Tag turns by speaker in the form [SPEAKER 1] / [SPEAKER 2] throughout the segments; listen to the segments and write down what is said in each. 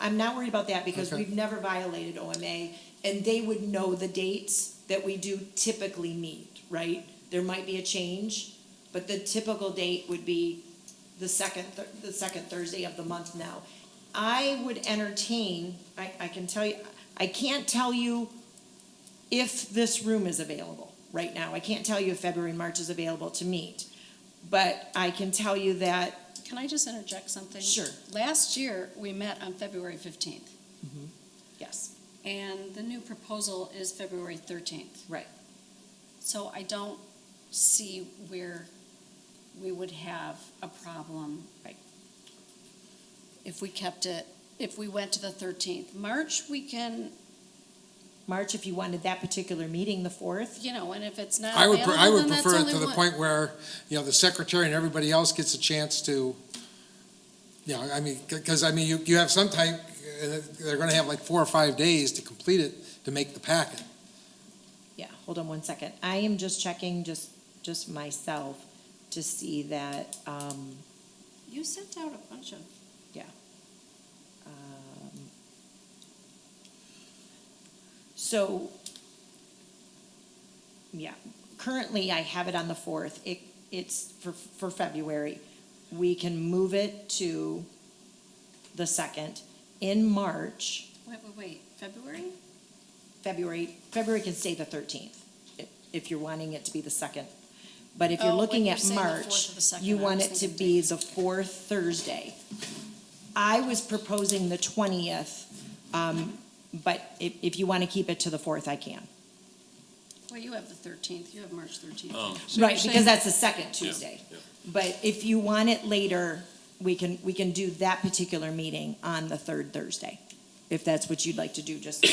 [SPEAKER 1] I'm not worried about that because
[SPEAKER 2] Okay.
[SPEAKER 1] we've never violated OMA, and they would know the dates that we do typically meet, right? There might be a change, but the typical date would be the second, Thur- the second Thursday of the month now. I would entertain, I, I can tell you, I can't tell you if this room is available right now. I can't tell you if February, March is available to meet. But I can tell you that
[SPEAKER 3] Can I just interject something?
[SPEAKER 1] Sure.
[SPEAKER 3] Last year, we met on February fifteenth,
[SPEAKER 1] Yes,
[SPEAKER 3] and the new proposal is February thirteenth.
[SPEAKER 1] right.
[SPEAKER 3] So I don't see where we would have a problem.
[SPEAKER 1] Right.
[SPEAKER 3] If we kept it, if we went to the thirteenth. March, we can,
[SPEAKER 1] March, if you wanted that particular meeting, the fourth.
[SPEAKER 3] you know, and if it's not
[SPEAKER 2] I would,
[SPEAKER 3] available,
[SPEAKER 2] pre- I would
[SPEAKER 3] then that's
[SPEAKER 2] prefer it
[SPEAKER 3] only
[SPEAKER 2] to the
[SPEAKER 3] one.
[SPEAKER 2] point where, you know, the secretary and everybody else gets a chance to, you know, I mean, because, I mean, you, you have some type, uh, they're gonna have like four or five days to complete it, to make the packet.
[SPEAKER 1] Yeah, hold on one second. I am just checking, just, just myself, to see that, um,
[SPEAKER 3] You sent out a bunch of,
[SPEAKER 1] um, so, yeah, currently I have it on the fourth. It, it's for, for February. We can move it to the second. In March,
[SPEAKER 3] wait, wait, wait, February?
[SPEAKER 1] February, February can stay the thirteenth, if you're wanting it to be the second. But if you're
[SPEAKER 3] Oh, when
[SPEAKER 1] looking
[SPEAKER 3] you're
[SPEAKER 1] at
[SPEAKER 3] saying the
[SPEAKER 1] March,
[SPEAKER 3] 4th or the 2nd,
[SPEAKER 1] you
[SPEAKER 3] I
[SPEAKER 1] want
[SPEAKER 3] was
[SPEAKER 1] it to
[SPEAKER 3] thinking
[SPEAKER 1] be the fourth Thursday. I was proposing the twentieth, um, but if, if you want to keep it to the fourth, I can.
[SPEAKER 3] Well, you have the thirteenth, you have March thirteenth.
[SPEAKER 4] Oh.
[SPEAKER 1] Right, because that's the second
[SPEAKER 4] Yeah,
[SPEAKER 1] Tuesday.
[SPEAKER 4] yeah.
[SPEAKER 1] But if you want it later, we can, we can do that particular meeting on the third Thursday, if that's what you'd like to do, just,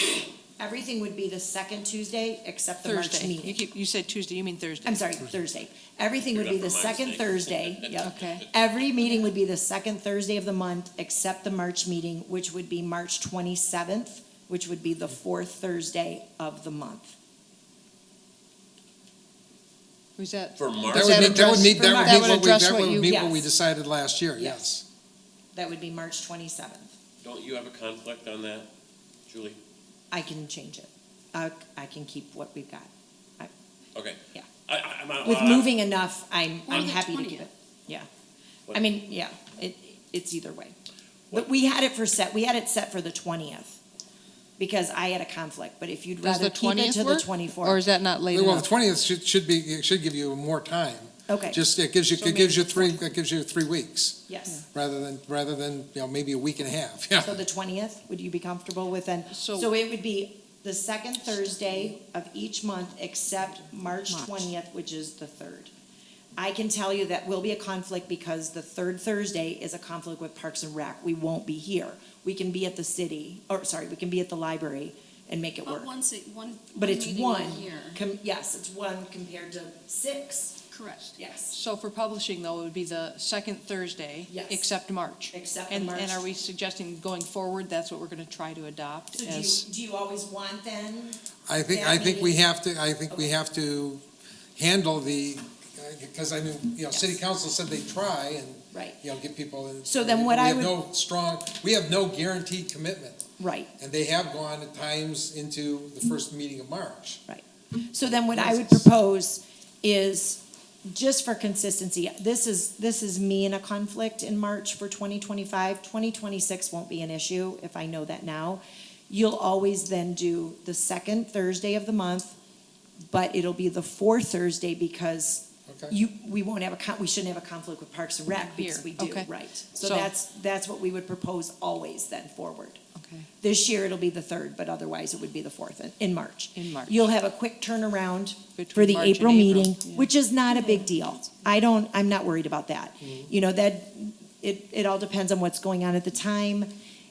[SPEAKER 1] everything would be the second Tuesday except the March
[SPEAKER 5] Thursday.
[SPEAKER 1] meeting.
[SPEAKER 5] You keep, you said Tuesday, you mean Thursday.
[SPEAKER 1] I'm sorry, Thursday. Everything would be the
[SPEAKER 4] Remember my
[SPEAKER 1] second
[SPEAKER 4] mistake.
[SPEAKER 1] Thursday, yep.
[SPEAKER 5] Okay.
[SPEAKER 1] Every meeting would be the second Thursday of the month, except the March meeting, which would be March twenty-seventh, which would be the fourth Thursday of the month.
[SPEAKER 5] Was that?
[SPEAKER 4] For
[SPEAKER 2] That
[SPEAKER 4] March?
[SPEAKER 5] Does
[SPEAKER 2] would
[SPEAKER 5] that
[SPEAKER 2] meet, that would
[SPEAKER 5] address-
[SPEAKER 2] meet, that
[SPEAKER 1] Vermont?
[SPEAKER 2] would meet
[SPEAKER 5] That would
[SPEAKER 2] what we,
[SPEAKER 5] address
[SPEAKER 2] that
[SPEAKER 5] what
[SPEAKER 2] would
[SPEAKER 5] you-
[SPEAKER 2] meet what we
[SPEAKER 1] Yes.
[SPEAKER 2] decided last year,
[SPEAKER 1] Yes.
[SPEAKER 2] yes.
[SPEAKER 1] That would be March twenty-seventh.
[SPEAKER 4] Don't you have a conflict on that, Julie?
[SPEAKER 1] I can change it. I, I can keep what we've got.
[SPEAKER 4] Okay.
[SPEAKER 1] Yeah.
[SPEAKER 4] I, I, I'm out.
[SPEAKER 1] With
[SPEAKER 4] I'm-
[SPEAKER 1] moving enough, I'm,
[SPEAKER 3] Or
[SPEAKER 1] I'm
[SPEAKER 3] the
[SPEAKER 1] happy to keep
[SPEAKER 3] 20th.
[SPEAKER 1] it. Yeah. I
[SPEAKER 4] What-
[SPEAKER 1] mean, yeah, it, it's either way. But
[SPEAKER 4] What-
[SPEAKER 1] we had it for set, we had it set for the twentieth, because I had a conflict, but if you'd
[SPEAKER 5] Does
[SPEAKER 1] rather
[SPEAKER 5] the
[SPEAKER 1] keep it
[SPEAKER 5] twentieth
[SPEAKER 1] to the
[SPEAKER 5] work?
[SPEAKER 1] twenty-fourth.
[SPEAKER 5] Or is that not late
[SPEAKER 2] Well, the
[SPEAKER 5] enough?
[SPEAKER 2] twentieth should, should be, it should give you more time.
[SPEAKER 1] Okay,
[SPEAKER 2] Just, it gives you,
[SPEAKER 5] So
[SPEAKER 2] it gives you
[SPEAKER 5] maybe
[SPEAKER 2] three, it gives you three weeks,
[SPEAKER 1] yes.
[SPEAKER 2] rather than, rather than, you know, maybe a week and a half, yeah.
[SPEAKER 1] So the twentieth, would you be comfortable with then?
[SPEAKER 5] So-
[SPEAKER 1] So it would be the second Thursday of each month except March
[SPEAKER 5] March.
[SPEAKER 1] twentieth, which is the third. I can tell you that will be a conflict because the third Thursday is a conflict with Parks and Rec. We won't be here. We can be at the city, or sorry, we can be at the library and make it work.
[SPEAKER 3] But once, it- one, one
[SPEAKER 1] But it's
[SPEAKER 3] meeting
[SPEAKER 1] one,
[SPEAKER 3] a year.
[SPEAKER 1] com- yes, it's one compared to six,
[SPEAKER 3] Correct.
[SPEAKER 1] yes.
[SPEAKER 5] So for publishing though, it would be the second Thursday.
[SPEAKER 1] Yes.
[SPEAKER 5] Except March.
[SPEAKER 1] Except the
[SPEAKER 5] And,
[SPEAKER 1] March.
[SPEAKER 5] and are we suggesting going forward, that's what we're gonna try to adopt
[SPEAKER 1] So do you,
[SPEAKER 5] as?
[SPEAKER 1] do you always want then?
[SPEAKER 2] I think,
[SPEAKER 1] that
[SPEAKER 2] I think we
[SPEAKER 1] meeting.
[SPEAKER 2] have to, I think we
[SPEAKER 1] Okay.
[SPEAKER 2] have to handle the, because I mean, you know, city council said they try and,
[SPEAKER 1] Right,
[SPEAKER 2] you know, get people. in-
[SPEAKER 1] So then what I would-
[SPEAKER 2] We have no strong, we have no guaranteed commitment,
[SPEAKER 1] right,
[SPEAKER 2] and they have gone at times into the first meeting of March.
[SPEAKER 1] right. So then what I would propose is, just for consistency, this is, this is me in a conflict in March for 2025. 2026 won't be an issue if I know that now. You'll always then do the second Thursday of the month, but it'll be the fourth Thursday because
[SPEAKER 2] Okay.
[SPEAKER 1] You, we won't have a, con- we shouldn't have a conflict with Parks and Rec because
[SPEAKER 5] Here,
[SPEAKER 1] we do,
[SPEAKER 5] okay.
[SPEAKER 1] right? So
[SPEAKER 5] So-
[SPEAKER 1] that's, that's what we would propose always then forward.
[SPEAKER 5] Okay.
[SPEAKER 1] This year it'll be the third, but otherwise it would be the fourth in- in March.
[SPEAKER 5] In March.
[SPEAKER 1] You'll have a quick turnaround for
[SPEAKER 5] Between
[SPEAKER 1] the
[SPEAKER 5] March and
[SPEAKER 1] April meeting,
[SPEAKER 5] April, yeah.
[SPEAKER 1] which is not a big deal. I don't, I'm not worried about that.
[SPEAKER 5] Mm-hmm.
[SPEAKER 1] You know, that, it, it all depends on what's going on at the time.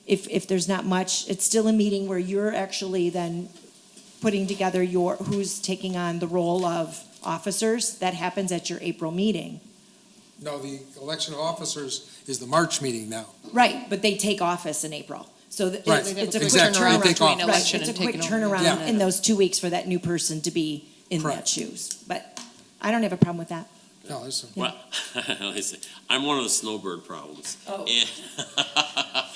[SPEAKER 1] If, if there's not much, it's still a meeting where you're actually then putting together your, who's taking on the role of officers. That happens at your April meeting.
[SPEAKER 2] No, the election of officers is the March meeting now.
[SPEAKER 1] Right, but they take office in April. So th-
[SPEAKER 2] Right,
[SPEAKER 1] it's it's a quick
[SPEAKER 2] exactly. They
[SPEAKER 1] turnaround.
[SPEAKER 2] take
[SPEAKER 1] between
[SPEAKER 2] office.
[SPEAKER 5] election
[SPEAKER 1] Right, it's a
[SPEAKER 5] and
[SPEAKER 1] quick
[SPEAKER 5] taking over.
[SPEAKER 1] turnaround
[SPEAKER 2] Yeah.
[SPEAKER 1] in those two weeks for that new person to be in that
[SPEAKER 2] Correct.
[SPEAKER 1] shoes. But I don't have a problem with that.
[SPEAKER 2] No, there's some-
[SPEAKER 4] Well, I say, I'm one of the snowbird problems.
[SPEAKER 1] Oh.
[SPEAKER 4] And-